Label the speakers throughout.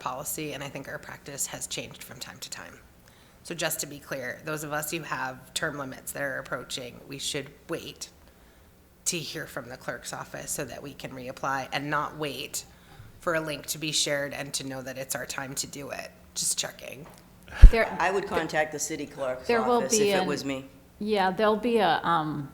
Speaker 1: policy, and I think our practice has changed from time to time. So just to be clear, those of us who have term limits that are approaching, we should wait to hear from the clerk's office so that we can reapply and not wait for a link to be shared and to know that it's our time to do it. Just checking.
Speaker 2: There,
Speaker 3: I would contact the city clerk's
Speaker 2: There will
Speaker 3: office if
Speaker 2: be
Speaker 3: it
Speaker 2: an-
Speaker 3: was me.
Speaker 2: yeah, there'll be a, um,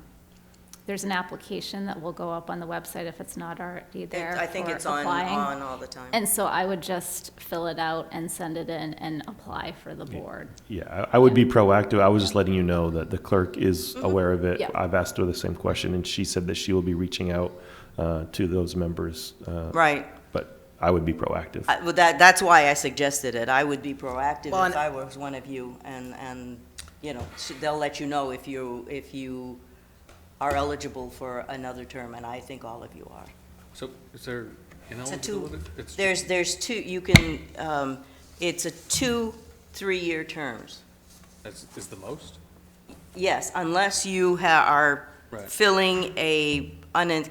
Speaker 2: there's an application that will go up on the website if it's not already
Speaker 3: It-
Speaker 2: there.
Speaker 3: I think
Speaker 2: for
Speaker 3: it's on,
Speaker 2: applying.
Speaker 3: on all the time.
Speaker 2: And so I would just fill it out and send it in and apply for the board.
Speaker 4: Yeah, I I would be proactive. I was just letting you know that the clerk is aware of it.
Speaker 2: Yeah.
Speaker 4: I've asked her the same question, and she said that she will be reaching out uh, to those members. uh,
Speaker 3: Right.
Speaker 4: But I would be proactive.
Speaker 3: I- Well, that, that's why I suggested it. I would be proactive
Speaker 1: Well, and-
Speaker 3: if I was one of you, and, and, you know, s- they'll let you know if you, if you are eligible for another term, and I think all of you are.
Speaker 5: So is there an
Speaker 3: It's a
Speaker 5: eligibility?
Speaker 3: two,
Speaker 5: It's two-
Speaker 3: there's, there's two, you can, um, it's a two, three-year terms.
Speaker 5: Is is the most?
Speaker 3: Yes, unless you ha, are
Speaker 5: Right.
Speaker 3: filling a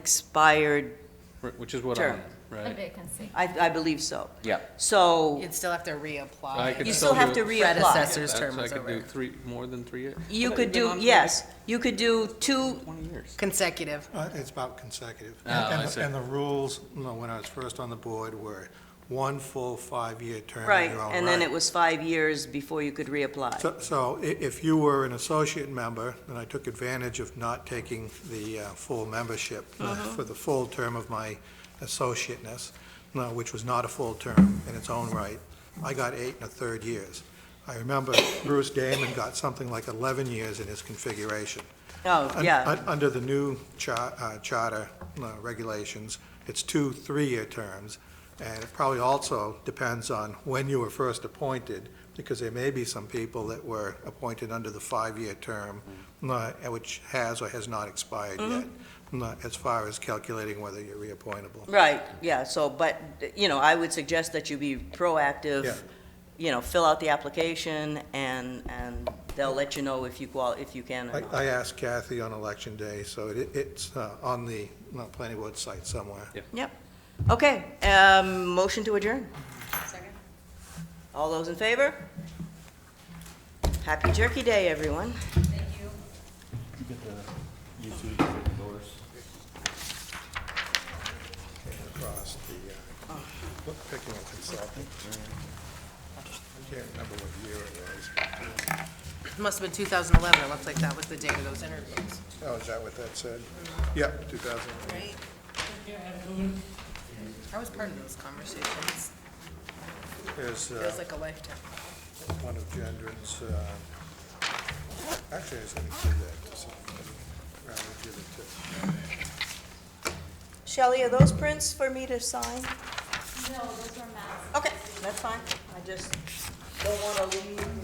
Speaker 3: unexpired,
Speaker 5: Right, Which is what
Speaker 3: Sure.
Speaker 5: I'm, right?
Speaker 2: vacancy.
Speaker 3: I, I believe so.
Speaker 5: Yeah.
Speaker 3: So.
Speaker 1: You'd still have to
Speaker 5: I
Speaker 1: reapply.
Speaker 5: could
Speaker 3: You still have
Speaker 5: do-
Speaker 3: to reapply.
Speaker 1: Predecessor's
Speaker 5: That's-
Speaker 1: term
Speaker 5: I
Speaker 1: is
Speaker 5: could do
Speaker 1: over.
Speaker 5: three, more than three years?
Speaker 3: You
Speaker 5: I've
Speaker 3: could
Speaker 5: been
Speaker 3: do,
Speaker 5: on for
Speaker 3: yes, you could do two,
Speaker 5: Twenty years.
Speaker 1: Consecutive.
Speaker 6: Uh, It's about consecutive.
Speaker 5: Oh,
Speaker 6: And-
Speaker 5: I
Speaker 6: and-
Speaker 5: see.
Speaker 6: And the rules, you know, when I was first on the board, were one full five-year term
Speaker 3: right,
Speaker 6: in your own
Speaker 3: and then
Speaker 6: right.
Speaker 3: it was five years before you could reapply.
Speaker 6: So- So i- if you were an associate member, and I took advantage of not taking the uh, full membership uh,
Speaker 3: Uh-huh.
Speaker 6: for the full term of my associateness, no, which was not a full term in its own right, I got eight and a third years. I remember Bruce Damon got something like 11 years in his configuration.
Speaker 3: Oh,
Speaker 6: Un-
Speaker 3: yeah,
Speaker 6: un- Under the new cha- uh, charter uh, regulations, it's two three-year terms, and it probably also depends on when you were first appointed, because there may be some people that were appointed under the five-year term, uh, which has or has not expired yet, uh, as far as calculating whether you're reappointable.
Speaker 3: right, yeah, so, but, you know, I would suggest that you be
Speaker 6: Yeah.
Speaker 3: proactive, you know, fill out the application, and, and they'll let you know if you qual, if you can or
Speaker 6: I
Speaker 3: not.
Speaker 6: I asked Kathy on election day, so it- it's uh, on the uh, planning board site somewhere.
Speaker 3: Yep, okay, um, motion to adjourn. All those in favor? Happy Turkey Day, everyone.
Speaker 6: across the, uh, look, picking a consultant. I can't remember what year it was.
Speaker 1: Must have been 2011. It looks like that was the date of those interviews.
Speaker 6: Oh, is that what that said? Yep, 2008.
Speaker 1: I was part of those conversations.
Speaker 6: There's
Speaker 1: It was
Speaker 6: uh,
Speaker 1: like a lifetime.
Speaker 6: one of Gendron's, uh, actually, I was going to give that to somebody. Rather than give it to-
Speaker 3: Shelley, are those prints for me to sign? No, those are maps. Okay, that's fine. I just don't want to leave